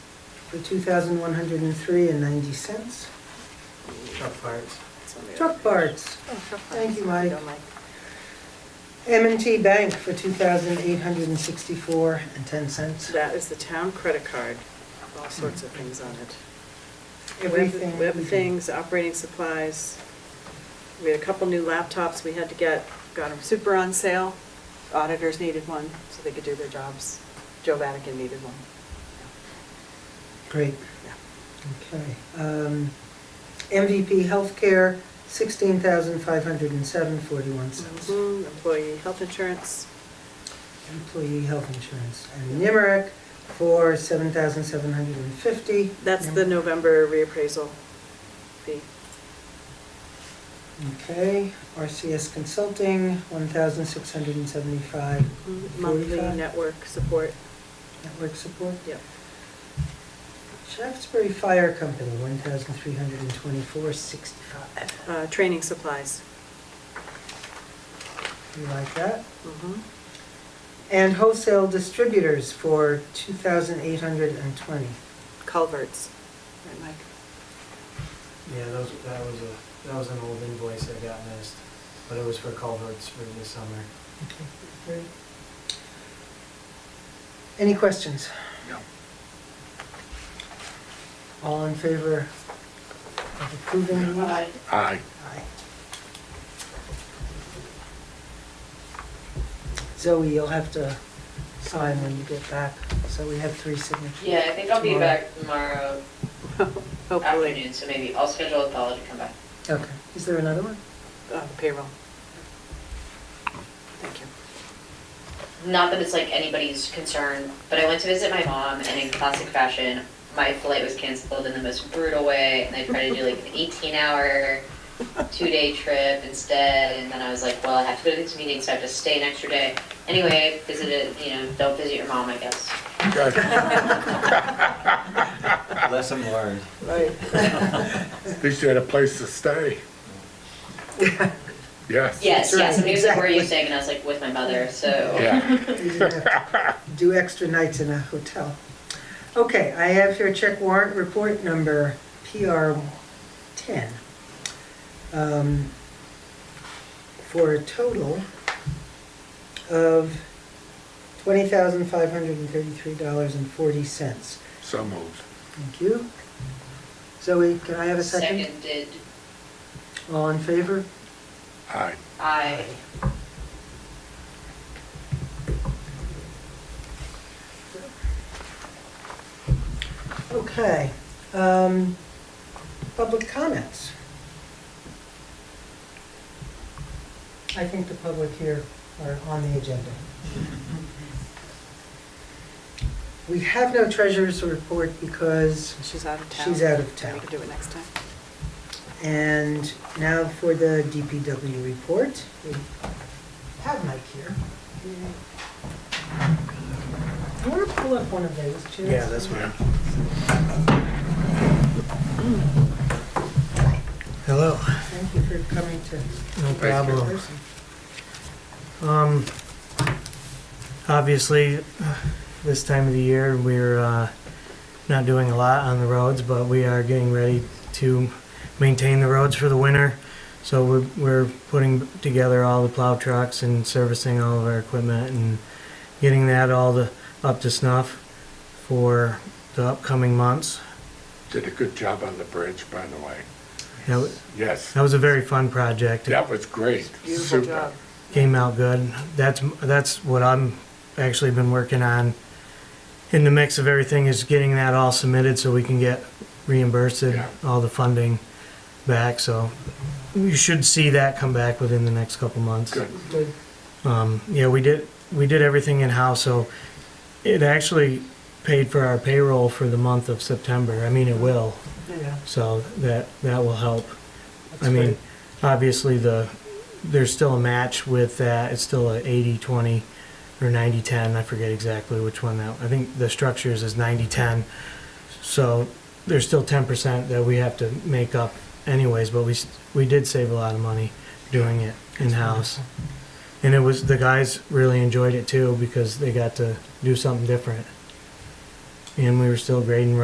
for two thousand one hundred and three and ninety cents. Truck parts. Truck parts, Thank Thank you, Mike. m and T Bank for two thousand eight hundred and sixty-four and ten cents. That is the town credit card, all sorts of things on it. Web- Everything. Web we do. things, operating supplies. We had a couple new laptops we had to get, got them super on sale. Auditors needed one so they could do their jobs. Joe Vatican needed one. Great, Yeah. okay. Um, MVP Healthcare, sixteen thousand five hundred and seven forty-one cents. Mhm, Employee health insurance, Employee health insurance. And Nimerick for seven thousand seven hundred and fifty. that's the November reappraisal fee. Okay, RCS Consulting, one thousand six hundred and seventy-five. Monthly network support, Network support. yep. Shaftesbury Fire Company, one thousand three hundred and twenty-four sixty-five. Uh, Training supplies. You like that? Mhm. And wholesale distributors for two thousand eight hundred and twenty. Culverts, right, Mike? Yeah, those, that was a, that was an old invoice that got missed, but it was for culverts for this summer. Okay, great. Any questions? No. All in favor of approving? Uh, Aye. Aye. Aye. Zoe, you'll have to sign when you get back, so we have three signatures. Yeah, I think I'll be Tomorrow. back tomorrow Hopefully, afternoon, so maybe I'll schedule Othello to come back. Okay, is there another one? uh, payroll. Thank you. Not that it's like anybody's concern, but I went to visit my mom and in classic fashion, my flight was canceled in the most brutal way and I tried to do like an eighteen hour, two day trip instead and then I was like, well, I have to go to this meeting, so I have to stay an extra day. Anyway, visited, you know, don't visit your mom, I guess. Lesson learned. Right. At least you had a place to stay. Yes. Yes, right, yes, and he was like, where are you exactly. staying? And I was like, with my mother, so. Yeah. You didn't have to Do extra nights in a hotel. Okay, I have here check warrant report number PR 10. um, For a total of $20,533.40. So moved. Thank you. Zoe, can I have a second? Seconded, All in favor? Aye. I, Okay. um, Public comments. I think the public here are on the agenda. We have no treasurer's report because, She's out of town. She's out of town. We can do it next time. and now for the DPW report. We have Mike here. I want to pull up one of those, Chance. one. Hello. Thank you for coming to. No Thank you. problem. Um, obviously, uh, this time of the year, we're, uh, not doing a lot on the roads, but we are getting ready to maintain the roads for the winter. So we're, we're putting together all the plow trucks and servicing all of our equipment and getting that all the, up to snuff for the upcoming months. Did a good job on the bridge, by the way. That, wa- Yes. that was a very fun project. That was great. Beautiful Super. job. came out good. That's that's what I'm actually been working on. In the mix of everything is getting that all submitted so we can get reimbursed Yeah. all the funding back. So you should see that come back within the next couple months. Good. Good. Um, yeah, we did we did everything in house, so it actually paid for our payroll for the month of September. I mean, it will. Yeah. So that, that will help. I That's mean, great. obviously, the, there's still a match with that, it's still a 80-20 or 90-10, I forget exactly which one that, I think the structures is 90-10. So there's still 10% that we have to make up anyways, but we, s- we did save a lot of money doing it in-house. And it was, the guys really enjoyed it too, because they got to do something different. And we were still grading